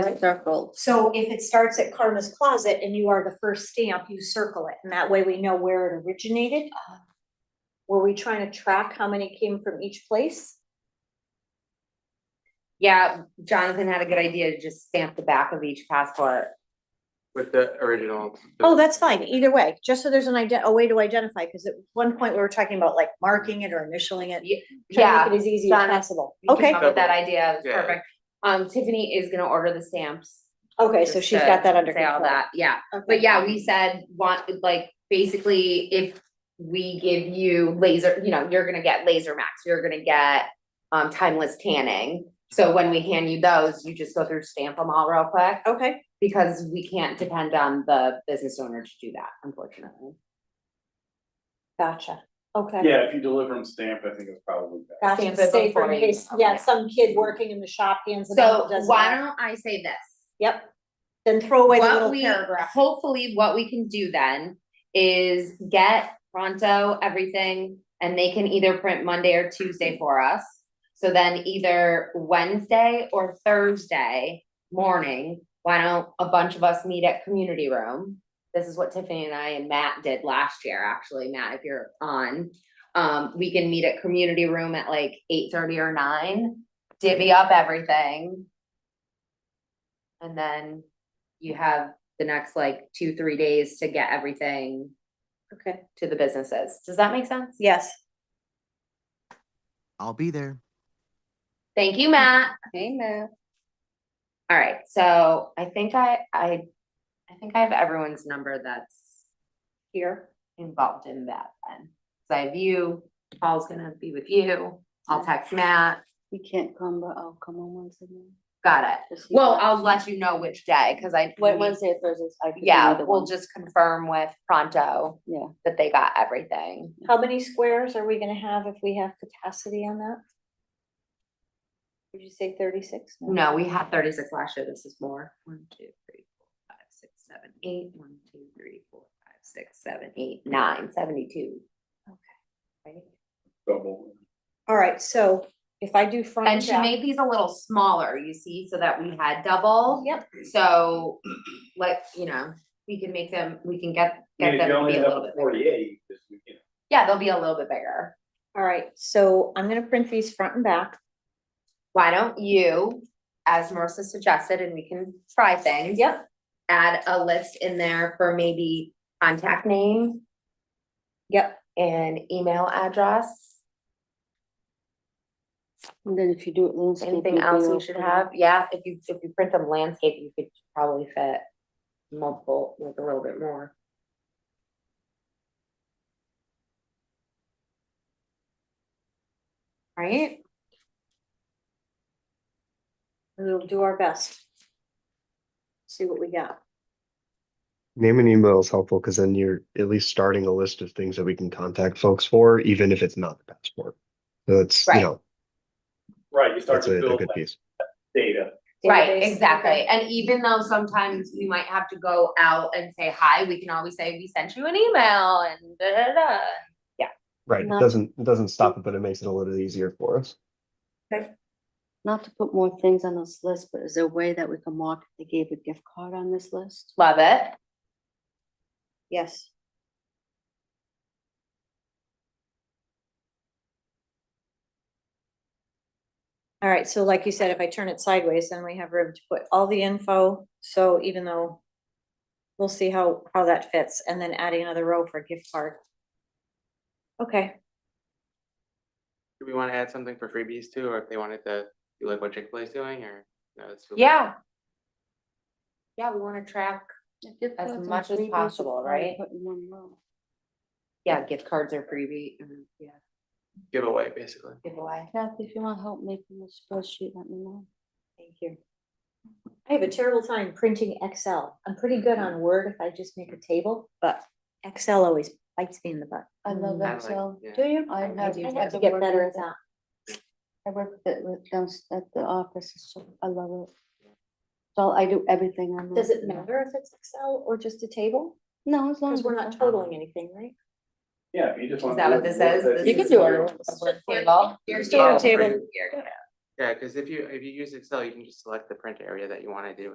circled. So if it starts at Karma's Closet and you are the first stamp, you circle it, and that way we know where it originated. Uh-huh. Were we trying to track how many came from each place? Yeah, Jonathan had a good idea to just stamp the back of each passport. with the original. Oh, that's fine, either way, just so there's an idea, a way to identify, because at one point we were talking about like marking it or initialing it. trying to Yeah, make It as easy as Donna, possible. we Okay, came up with that idea, it's Yeah. perfect. Um, Tiffany is gonna order the stamps. okay, so just she's to got that under Say all control. that, yeah, Okay. but yeah, we said want, like, basically, if we give you laser, you know, you're gonna get laser max, you're gonna get. Um, timeless tanning, so when we hand you those, you just go through, stamp them all real quick, Okay, because we can't depend on the business owner to do that, unfortunately. gotcha, okay. Yeah, if you deliver them stamped, I think it's probably better. Gotcha, Stamp it safer in before you- case- Yeah, okay. some kid working in the shop hands it So out, does why that. don't I say this? Yep, then throw away the What little we- paragraph. Hopefully, what we can do then is get pronto everything and they can either print Monday or Tuesday for us. So then either Wednesday or Thursday morning, why don't a bunch of us meet at community room? This is what Tiffany and I and Matt did last year, actually, Matt, if you're on. Um, we can meet at community room at like eight thirty or nine, divvy up everything. And then you have the next like two, three days to get everything Okay, to the businesses. Does that make sense? yes. I'll be there. Thank you, Matt. Hey, Matt. All right, so I think I, I, I think I have everyone's number that's Here. involved in that then. So I have you, Paul's gonna be with you, I'll text Matt, You can't come, but I'll come on Wednesday. night. got it. Just you Well, guys. I'll let you know which day, cause I. Wed- Wednesday, or Thursdays. I could do Yeah, either we'll one. just confirm with Pronto Yeah. that they got everything. How many squares are we gonna have if we have capacity on that? Did you say thirty-six? No, we had thirty-six last year, this is more, one, two, three, four, five, six, seven, eight, one, two, three, four, five, six, seven, eight, nine, seventy-two. Okay. Double. All right, so if I do front. And she shop- made these a little smaller, you see, so that we had double, Yep, so, like, you know, we can make them, we can get, I mean, get if them you to only be a end up little bit with bigger. forty-eight, this weekend. Yeah, they'll be a little bit bigger. all right, so I'm gonna print these front and back. Why don't you, as Marissa suggested, and we can try things. Yep. Add a list in there for maybe contact name, Yep, and email address, And then if you do it landscaping. anything else we'll we should put it- have, yeah, if you, if you print them landscape, you could probably fit multiple, like a little bit more. Right? we'll do our best. See what we got. Name and email is helpful because then you're at least starting a list of things that we can contact folks for, even if it's not the passport. So that's, you Right. know, Right, you start that's to a a build good that piece. data. Right, Database, exactly, okay. and even though sometimes we might have to go out and say hi, we can always say, we sent you an email and da da da. Right. It Not- doesn't, it doesn't stop it, but it makes it a little easier for us. Not to put more things on this list, but is there a way that we can mark if they gave a gift card on this list? Love it, Yes. All right, so like you said, if I turn it sideways, then we have room to put all the info, so even though we'll see how, how that fits, and then adding another row for gift card. Okay, Do we wanna add something for freebies too, or if they wanted to do like what Chick-fil-A is doing or? no, it's too late? yeah. Yeah, we wanna track, A gift As card and much as freebies are possible, fine to right? put in one row. yeah, gift cards are freebie, mm, yeah, Giveaway, basically. giveaway. Kathy, if you want help making a spreadsheet, let me know. thank you. I have a terrible time printing Excel. I'm pretty good on Word if I just make a table, but Excel always bites me in the butt. I love Mm, I I like- Excel. yeah. Do you? Um, I I- I have. do I too. have had to to get work better with at that. I work with it with downst at the office, it's so, I love it. So I do everything on. Does that. it matter if it's Excel or just a table? Mm-hmm. No, as long Because as. we're it's not on- totaling anything, right? Yeah, if you just Is want. that what this is? This You is can do it. a word Table. You're still on Oh, table. great. You're good. Yeah, cause if you, if you use Excel, you can just select the print area that you wanna do